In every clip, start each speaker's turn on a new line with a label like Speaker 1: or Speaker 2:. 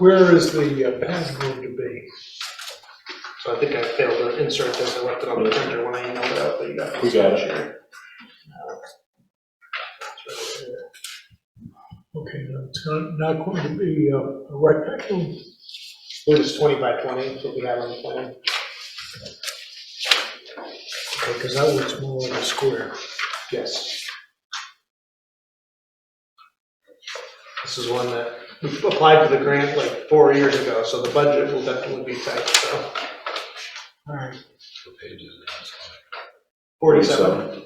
Speaker 1: Where is the uh, pad going to be?
Speaker 2: So I think I failed to insert this, I left it on the printer when I emailed it out, but you got.
Speaker 3: We got it.
Speaker 2: Sure.
Speaker 1: Okay, no, it's not, not going to be uh, a rectangle,
Speaker 2: Which is twenty by twenty, is what we have on the plan.
Speaker 1: because that looks more like a square.
Speaker 2: Yes. This is one that we applied for the grant like four years ago, so the budget will definitely be tight, so.
Speaker 1: All right,
Speaker 2: Forty-seven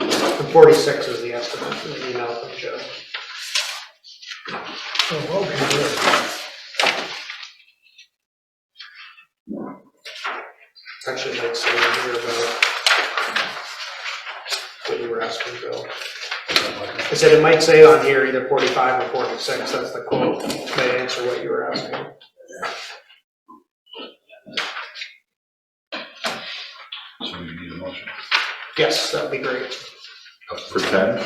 Speaker 2: and forty-six is the estimate, in the email from Joe.
Speaker 1: oh, okay, good.
Speaker 2: Actually, Mike's saying here about what you were asking, Bill. I said it might say on here either 45 or 46, that's the quote, may answer what you were asking.
Speaker 4: So we need a motion.
Speaker 2: Yes, that'd be great.
Speaker 3: For ten?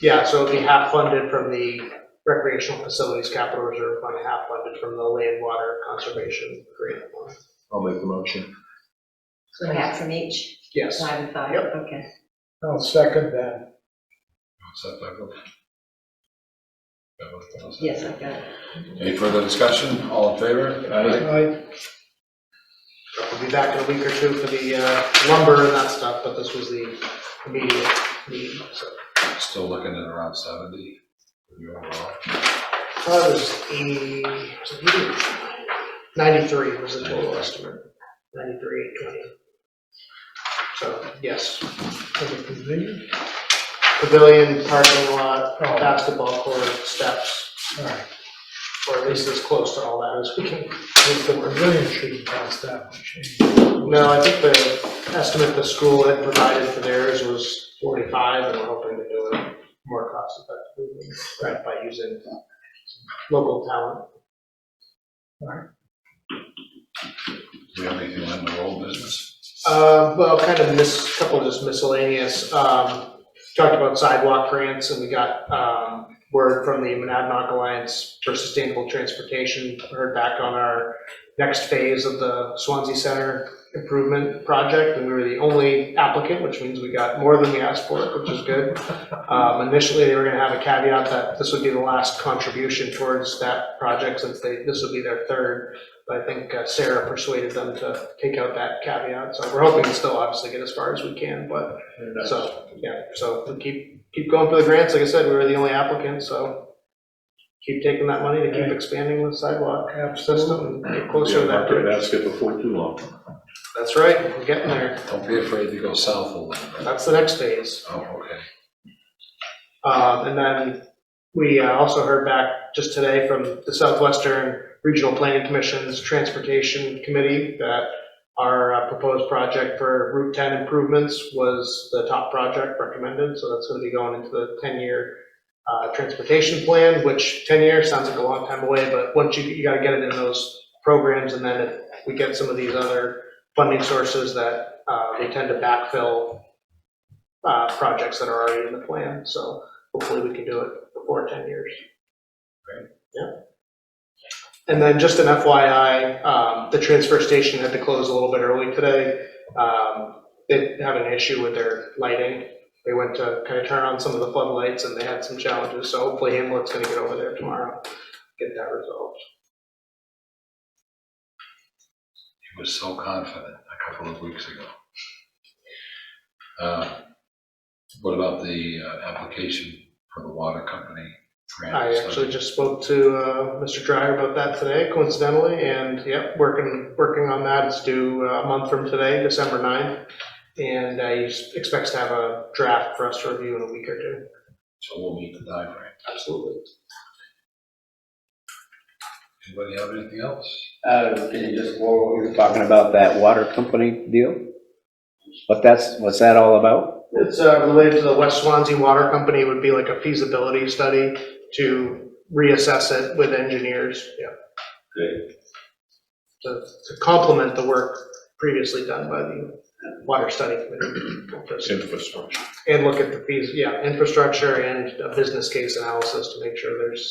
Speaker 2: Yeah, so it'd be half funded from the recreational facilities capital reserve fund, half funded from the land water conservation grant fund.
Speaker 3: I'll make the motion.
Speaker 5: So half from each,
Speaker 2: Yes,
Speaker 5: five and five,
Speaker 2: Yep.
Speaker 5: okay.
Speaker 1: I'll second that.
Speaker 4: What's that, Michael? Got both those?
Speaker 5: Yes, I've got it.
Speaker 4: Any further discussion? All in favor?
Speaker 3: Aye.
Speaker 1: I,
Speaker 2: we'll be back in a week or two for the uh, lumber and that stuff, but this was the immediate need, so. uh,
Speaker 4: Still looking at around seventy. uh, for the overall.
Speaker 2: That was eighty, was it 80? ninety-three was the total estimate, ninety-three, eight twenty. So, yes,
Speaker 1: for the pavilion,
Speaker 2: pavilion, parking lot,
Speaker 1: Oh.
Speaker 2: basketball court, steps,
Speaker 1: all right,
Speaker 2: or at least as close to all that as we can.
Speaker 1: but the pavilion shouldn't cost that much.
Speaker 2: No, I think the estimate the school had provided for theirs was forty-five, and we're hoping to do it more cost effectively, right, by using local talent.
Speaker 4: Do we have anything on the old business?
Speaker 2: Uh, well, kind of miss, couple just miscellaneous, um, talked about sidewalk grants, and we got, um, word from the Monadnock Alliance for Sustainable Transportation, heard back on our next phase of the Swansea Center improvement project, and we were the only applicant, which means we got more than we asked for, which is good. Um, initially, they were gonna have a caveat that this would be the last contribution towards that project, since they, this would be their third. But I think uh, Sarah persuaded them to take out that caveat, so we're hoping to still obviously get as far as we can, but, so, yeah, so we keep, keep going for the grants, like I said, we were the only applicant, so keep taking that money to keep expanding the sidewalk system and get closer to that bridge.
Speaker 3: Basket before too long.
Speaker 2: That's right, we're getting there,
Speaker 4: Don't be afraid to go south a little bit.
Speaker 2: that's the next phase.
Speaker 4: Oh, okay.
Speaker 2: Um, and then we uh, also heard back just today from the Southwestern Regional Planning Commission's Transportation Committee that our uh, proposed project for Route 10 improvements was the top project recommended, so that's going to be going into the 10-year uh, transportation plan, which 10 years sounds like a long time away, but once you, you got to get it in those programs, and then if we get some of these other funding sources that uh, they tend to backfill uh, projects that are already in the plan, so hopefully we can do it before 10 years. Yep. And then just an FYI, um, the transfer station had to close a little bit early today. Um, They had an issue with their lighting. They went to kind of turn on some of the floodlights and they had some challenges, so hopefully Hamlet's going to get over there tomorrow, get that resolved.
Speaker 4: He was so confident a couple of weeks ago. Uh, What about the uh, application for the water company? grant?
Speaker 2: I actually just spoke to uh, Mr. Dryer about that today, coincidentally, and yep, working, working on that. It's due uh, a month from today, December 9th. And uh, he s- expects to have a draft for us to review in a week or two.
Speaker 4: So we'll meet the time frame.
Speaker 2: Absolutely.
Speaker 4: Anybody have anything else?
Speaker 6: Uh, Can you just, go- we were talking about that water company deal? What that's, what's that all about?
Speaker 2: It's uh, related to the West Swansea Water Company, It would be like a feasibility study to reassess it with engineers, yeah. To to complement the work previously done by the Water Study Committee.
Speaker 3: Infrastructure.
Speaker 2: And look at the fees, yeah, infrastructure and a business case analysis to make sure there's